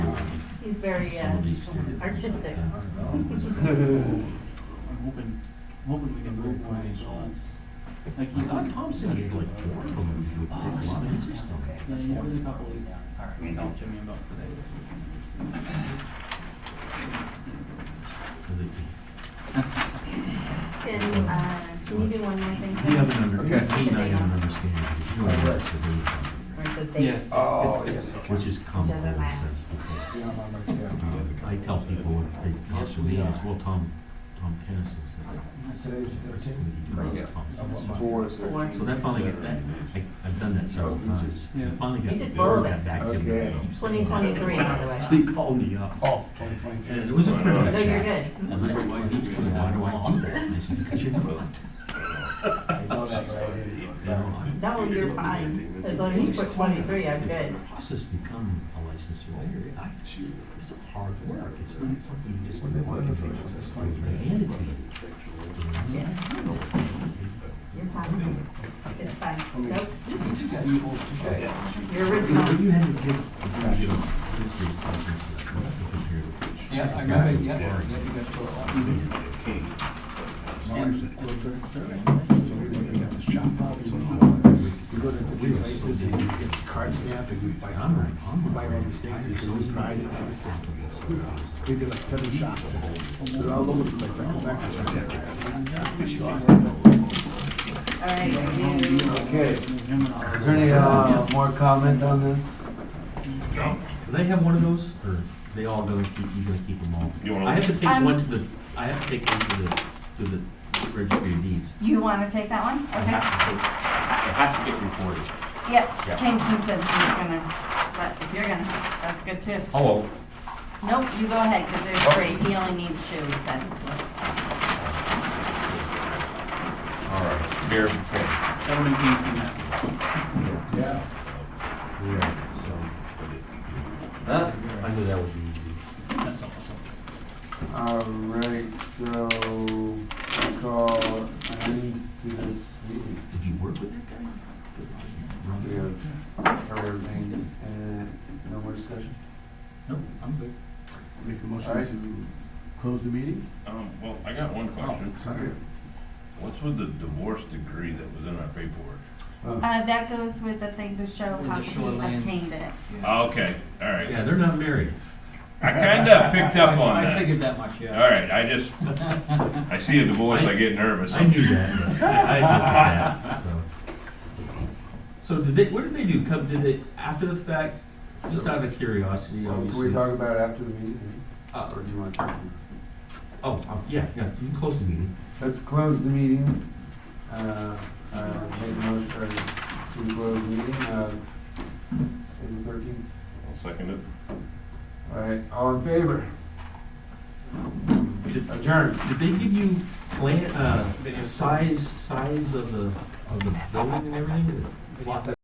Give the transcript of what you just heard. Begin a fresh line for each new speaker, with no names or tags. very uh, artistic.
I'm hoping, I'm hoping we can move one of these ones. Like, you Uh, thought Thompson gave it. Oh, this is interesting. Yeah, he's got a couple of these. All right, tell Jimmy about today.
Can, uh, can you do one more thing?
He doesn't under,
Okay.
he
They
doesn't
don't.
understand.
Or is it they?
Yes.
Oh, yes.
Which is common in a sense, because um, I tell people, if they talk to me, it's, well, Tom, Tom Kennis is the,
Today's
you know, it's Tom Kennis.
Four is
Four.
thirteen.
So that finally got that, I, I've done that several times.
Yeah.
I Finally
You
got,
just
they
borrowed
got
it.
back to me.
Oh, Okay.
you know.
2023, by the way.
So he called me up,
Oh, twenty twenty-two.
and it was a pretty good
No,
chat.
Oh, you're good.
And my wife was going, why do I do that? And I said, because you're not.
I know that, but I didn't.
You know, I-
No, you're fine. As long as you put twenty-three, I'm good.
Plus, has become a licensed lawyer. I- It's hard work. It's not something you just. Handed to you.
Yes, you're fine. It's fine. Nope, you're
But
original.
you had to give, you know, history lessons to compare to.
Yeah, I
got it, yeah, yeah, you
You go to the three places and you get your card stamped and you buy,
I'm right, I'm
you buy all
right.
these things and you
It's
can
always
be
been-
prizes. We did like seven shops. They're all over the place. I come back and
All right, you-
Okay,
Is
is there any, uh, more comment on this?
Do they have one of those, or they all go, keep- you guys keep them all?
You wanna-
I have to take
Um,
one to the, I have to take one to the, to the registry of deeds.
You want to take that one?
I
Okay.
have to take- It has to get recorded.
Yep,
Uh-huh. Yeah.
Kingston said he was gonna, but if you're gonna, that's good too.
Oh,
Nope, you go ahead, because there's three, he only needs two, he said.
All right, here, okay.
Everybody can see that.
Yeah.
yeah,
Huh?
so, I knew that would be easy.
That's awesome.
All right, so I call an end to this meeting.
Did you work with that guy?
We
Ron?
have covered everything and no more discussion.
Nope, I'm good.
Make a
All right.
motion to close the meeting?
Um, well, I got one question. What's with the divorce degree that was in our paperwork?
Uh, that goes with the thing to show
With
how
the
he
shoreline.
obtained it.
Ah, Okay, all right.
Yeah, they're not married.
I kinda picked up on
I
that.
figured that much, yeah.
All right, I just, I see a divorce, I get nervous.
I knew that. but I looked at that. So So did they, what did they do? Come, did they, after the fact, just out of curiosity,
Well, Can we
obviously?
talk about it after the meeting,
Uh,
or do you want to?
Oh, um, yeah, yeah, you can close the meeting.
Let's close the meeting. Uh, uh, make a motion or to close the meeting, uh, April thirteenth.
I'll second it.
All right, all in favor?
Did
Adjourn.
did they give you plan, uh, size, size of the, of the building and everything? Lots